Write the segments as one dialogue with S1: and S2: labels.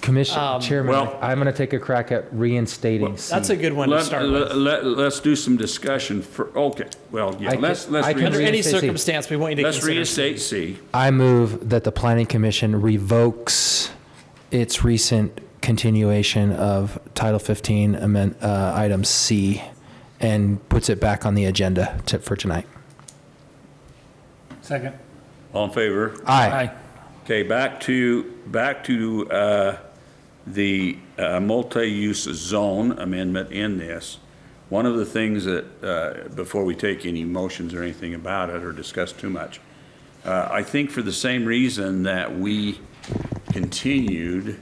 S1: Commission Chairman,
S2: Well-
S1: I'm going to take a crack at reinstating C.
S3: That's a good one to
S2: Let,
S3: start with.
S2: us do some discussion for, okay, well,
S1: I
S2: yeah,
S1: can-
S2: let's,
S1: I
S2: let's,
S1: can
S2: reinstate-
S3: Under any
S1: reinstate C.
S3: circumstance, we want you to
S2: let's
S3: consider.
S2: reinstate C.
S1: I move that the Planning Commission revokes its recent continuation of Title 15 amend, uh, item C and puts it back on the agenda to, for tonight.
S4: Second.
S2: All in favor?
S1: Aye.
S2: Okay, back to, back to uh, the uh, multi-use zone amendment in this. One of the things that, uh, before we take any motions or anything about it or discuss too much, uh, I think for the same reason that we continued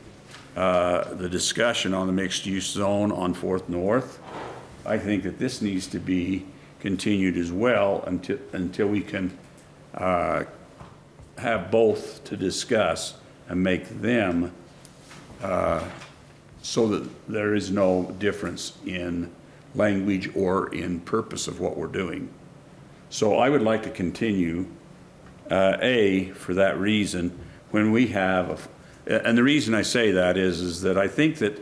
S2: uh, the discussion on the mixed-use zone on Fourth North, I think that this needs to be continued as well until, until we can have both to discuss and make them uh, so that there is no difference in language or in purpose of what we're doing. So I would like to continue, uh, A, for that reason, when we have, a- and the reason I say that is, is that I think that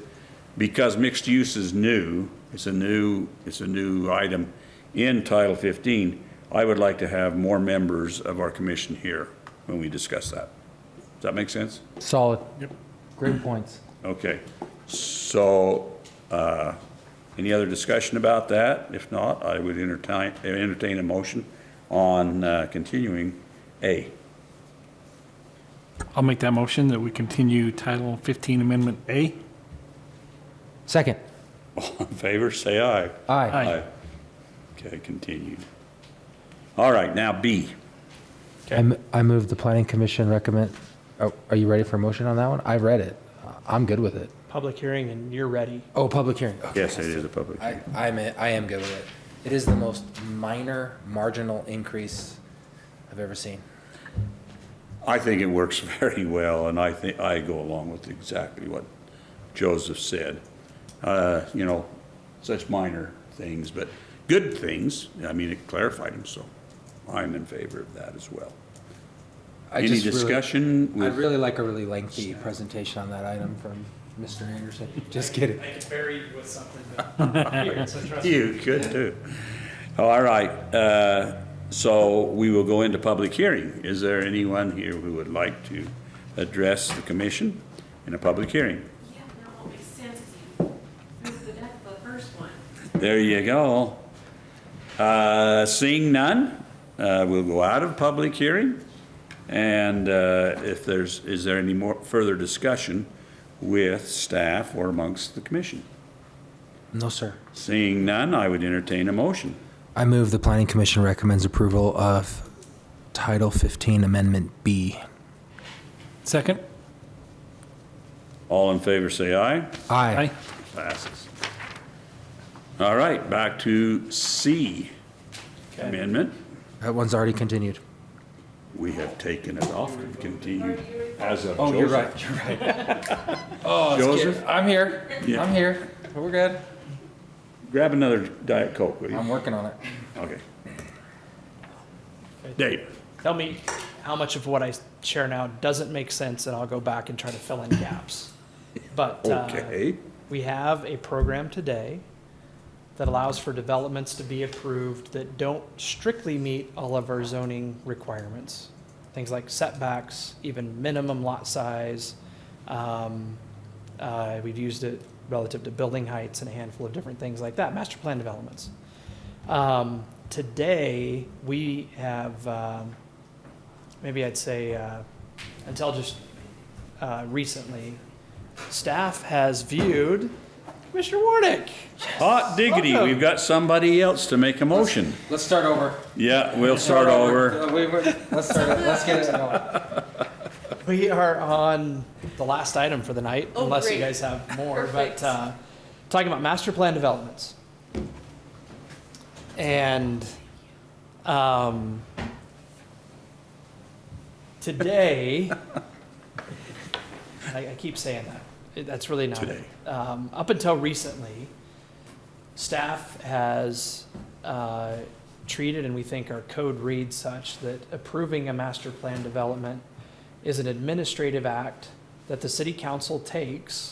S2: because mixed use is new, it's a new, it's a new item in Title 15, I would like to have more members of our commission here when we discuss that. Does that make sense?
S1: Solid. Yep. Great points.
S2: Okay, so, uh, any other discussion about that? If not, I would entertain, entertain a motion on uh, continuing A.
S4: I'll make that motion that we continue Title 15 Amendment A.
S1: Second.
S2: All in favor, say aye.
S1: Aye.
S4: Aye.
S2: Okay, continued. All right, now B.
S1: I m- I move the Planning Commission recommend, oh, are you ready for a motion on that one? I read it. I'm good with it.
S3: Public hearing and you're ready.
S1: Oh, public hearing. Okay.
S2: Yes, it is a public
S1: I,
S2: hearing.
S1: I'm, a- I am good with it. It is the most minor marginal increase I've ever seen.
S2: I think it works very well, and I think, I go along with exactly what Joseph said. Uh, You know, such minor things, but good things. I mean, it clarified them, so I'm in favor of that as well.
S1: I
S2: Any
S1: just really-
S2: discussion? with-
S1: I'd really like a really lengthy presentation on that item from Mr. Anderson. Just kidding.
S3: I can bury you with something, but here, so trust
S2: You could too. All right, uh, so we will go into public hearing. Is there anyone here who would like to address the commission in a public hearing?
S5: Yeah, now it makes sense if you move the deck the first one.
S2: There you go. Uh, Seeing none, uh, we'll go out of public hearing. And uh, if there's, is there any more further discussion with staff or amongst the commission?
S1: No, sir.
S2: Seeing none, I would entertain a motion.
S1: I move the planning commission recommends approval of Title 15 Amendment B.
S4: Second.
S2: All in favor, say aye.
S1: Aye.
S2: Passes. All right, back to C amendment.
S1: That one's already continued.
S2: We have taken it off and continued as of
S1: Oh, you're
S2: Joseph.
S1: right, you're right. Oh, it's
S2: Joseph?
S1: good. I'm here,
S2: Yeah.
S1: I'm here. We're good.
S2: Grab another Diet Coke, will you?
S1: I'm working on it.
S2: Okay. Dave,
S3: Tell me how much of what I share now doesn't make sense, and I'll go back and try to fill in gaps. But uh,
S2: okay,
S3: we have a program today that allows for developments to be approved that don't strictly meet all of our zoning requirements. Things like setbacks, even minimum lot size. Um, uh, We've used it relative to building heights and a handful of different things like that, master plan developments. Um, Today, we have, um, maybe I'd say, uh, until just uh, recently, staff has viewed Commissioner Warnick.
S2: hot diggity,
S3: Welcome.
S2: we've got somebody else to make a motion.
S1: Let's start over. Uh,
S2: Yeah, we'll start over.
S1: Let's start, let's get it going.
S3: We are on the last item for the night,
S5: Oh,
S3: unless you
S5: great.
S3: guys have more.
S5: Perfect.
S3: But uh, talking about master plan developments. And um, today, I, I keep saying that. It- That's really not. it.
S2: Today.
S3: Um, up until recently, staff has uh, treated, and we think our code reads such, that approving a master plan development is an administrative act that the city council takes